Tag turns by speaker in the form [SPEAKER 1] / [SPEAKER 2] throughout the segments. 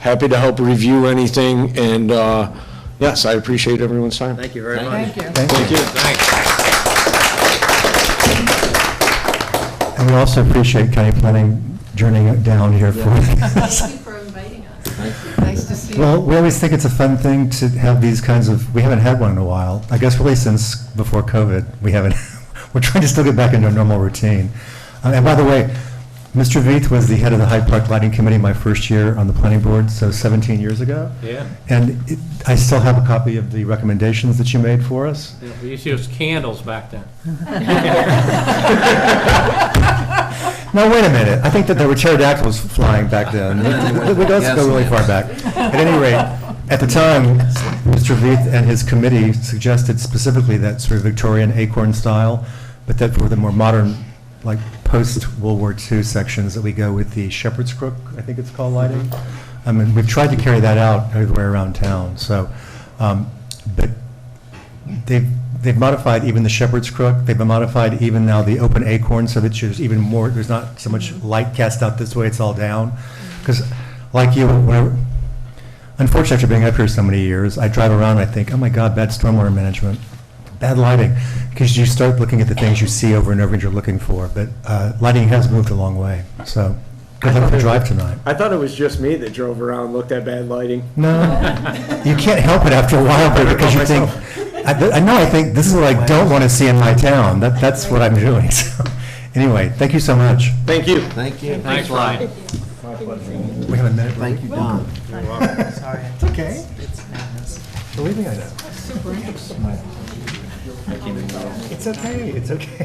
[SPEAKER 1] happy to help review anything, and, uh, yes, I appreciate everyone's time.
[SPEAKER 2] Thank you very much.
[SPEAKER 3] Thank
[SPEAKER 1] Thank
[SPEAKER 3] you.
[SPEAKER 1] you.
[SPEAKER 4] And we also appreciate county planning journeying it down here for.
[SPEAKER 5] Thank you for inviting us.
[SPEAKER 3] Nice to see you.
[SPEAKER 4] Well, we always think it's a fun thing to have these kinds of, we haven't had one in a while. I guess really since before COVID, we haven't, we're trying to still get back into a normal routine. Uh, And by the way, Mr. Veith was the head of the Hyde Park Lighting Committee my first year on the planning board, so 17 years ago.
[SPEAKER 6] Yeah.
[SPEAKER 4] And it- I still have a copy of the recommendations that you made for us.
[SPEAKER 6] Yeah, We used to use candles back then.
[SPEAKER 4] No, wait a minute. I think that there were pterodactyls flying back then. We don't have to go really far back. At any rate, at the time, Mr. Veith and his committee suggested specifically that sort of Victorian acorn style, but that for the more modern, like post-World War II sections, that we go with the shepherd's crook, I think it's called lighting. I mean, we've tried to carry that out everywhere around town, so, um, but They've, they've modified even the shepherd's crook, they've modified even now the open acorn, so that there's even more, there's not so much light cast out this way, it's all down. Because like you, whenever, unfortunately, after being up here so many years, I drive around and I think, oh my God, bad stormwater management, bad lighting. Because you start looking at the things you see over and over and you're looking for, but uh, lighting has moved a long way, so good luck with the drive tonight.
[SPEAKER 1] I thought it was just me that drove around, looked at bad lighting.
[SPEAKER 4] No, you can't help it after a while, but because you think, I, th- I know, I think, this is what I don't want to see in my town, that, that's what I'm doing, so, anyway, thank you so much.
[SPEAKER 1] Thank you.
[SPEAKER 2] Thank you.
[SPEAKER 6] Thanks, Ryan.
[SPEAKER 4] We have a minute. Thank
[SPEAKER 2] you, Don.
[SPEAKER 3] Sorry.
[SPEAKER 4] It's okay,
[SPEAKER 3] It's madness.
[SPEAKER 4] believe me, I know. It's okay, it's okay.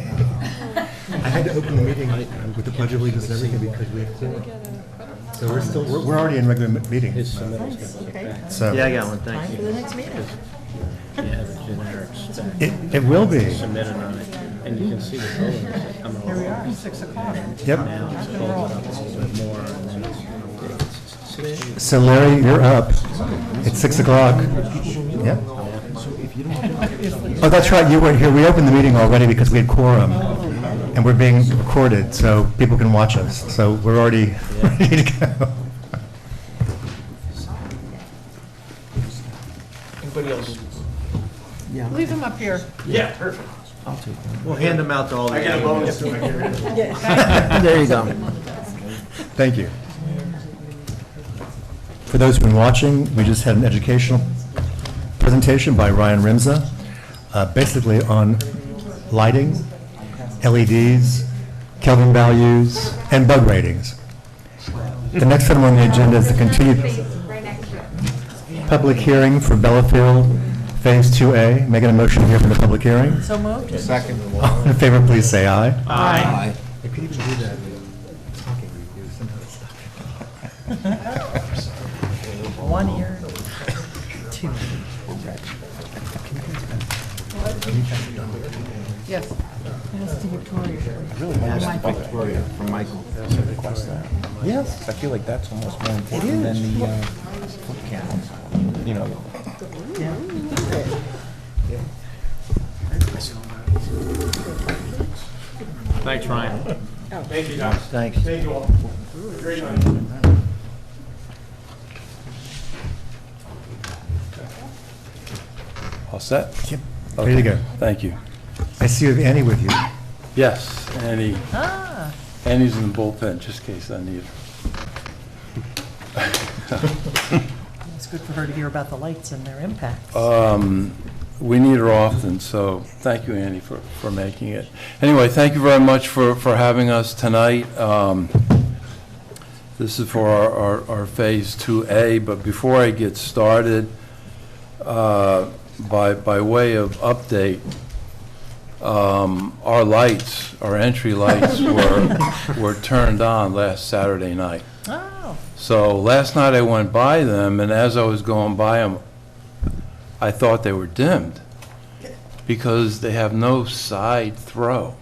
[SPEAKER 4] I had to open the meeting with the pledge of allegiance and everything because we have quorum. So we're still, we're, we're already in regular m- meeting,
[SPEAKER 3] Okay.
[SPEAKER 4] so.
[SPEAKER 2] Yeah, I got one, thank
[SPEAKER 3] Time
[SPEAKER 2] you.
[SPEAKER 3] for the next meeting.
[SPEAKER 6] Yeah, the generics
[SPEAKER 4] It, it will be,
[SPEAKER 6] submitted on it, and you can see the buildings that come along.
[SPEAKER 3] Here we are, six o'clock.
[SPEAKER 4] yep.
[SPEAKER 6] It's folded up a little bit more, and then it's- it's- it's-
[SPEAKER 4] So Larry, you're up. It's six o'clock. Yep. Oh, that's right, you weren't here. We opened the meeting already because we had quorum. And we're being recorded, so people can watch us. So we're already ready to go.
[SPEAKER 3] Leave them up here.
[SPEAKER 2] We'll hand them out to all the.
[SPEAKER 4] There you go. Thank you. For those who've been watching, we just had an educational presentation by Ryan Rimza, uh, basically on lighting, LEDs, Kelvin values, and bug ratings. The next item on the agenda is the continued
[SPEAKER 5] Right next to it.
[SPEAKER 4] public hearing for Bellafield Phase 2A. Making a motion here for the public hearing.
[SPEAKER 3] So moved.
[SPEAKER 4] All in favor, please say aye.
[SPEAKER 6] Aye.
[SPEAKER 3] One ear. Two. Yes. Ask the Victoria.
[SPEAKER 7] from Michael to request that. Yes. I feel like that's almost more important than the, uh, foot candles, you know.
[SPEAKER 6] Thanks, Ryan.
[SPEAKER 2] Thanks.
[SPEAKER 7] All set? Yep.
[SPEAKER 4] There you go.
[SPEAKER 7] Thank you.
[SPEAKER 4] I see you have Annie with you.
[SPEAKER 7] Yes, Annie. Annie's in the bullpen, just in case I need her.
[SPEAKER 3] It's good for her to hear about the lights and their impact.
[SPEAKER 7] Um, We need her often, so thank you, Andy, for, for making it. Anyway, thank you very much for, for having us tonight. Um, This is for our, our- our Phase 2A, but before I get started, uh, by, by way of update, um, our lights, our entry lights were, were turned on last Saturday night.
[SPEAKER 3] Oh,
[SPEAKER 7] So last night I went by them, and as I was going by them, I thought they were dimmed because they have no side throw.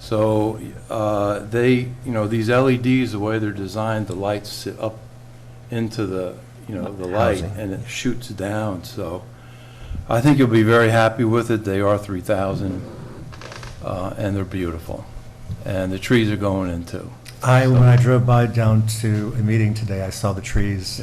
[SPEAKER 7] So uh, they, you know, these LEDs, the way they're designed, the lights sit up into the, you know, the light, and it shoots down, so I think you'll be very happy with it. They are 3,000, uh, and they're beautiful. And the trees are going in, too.
[SPEAKER 4] I, when I drove by down to a meeting today, I saw the trees.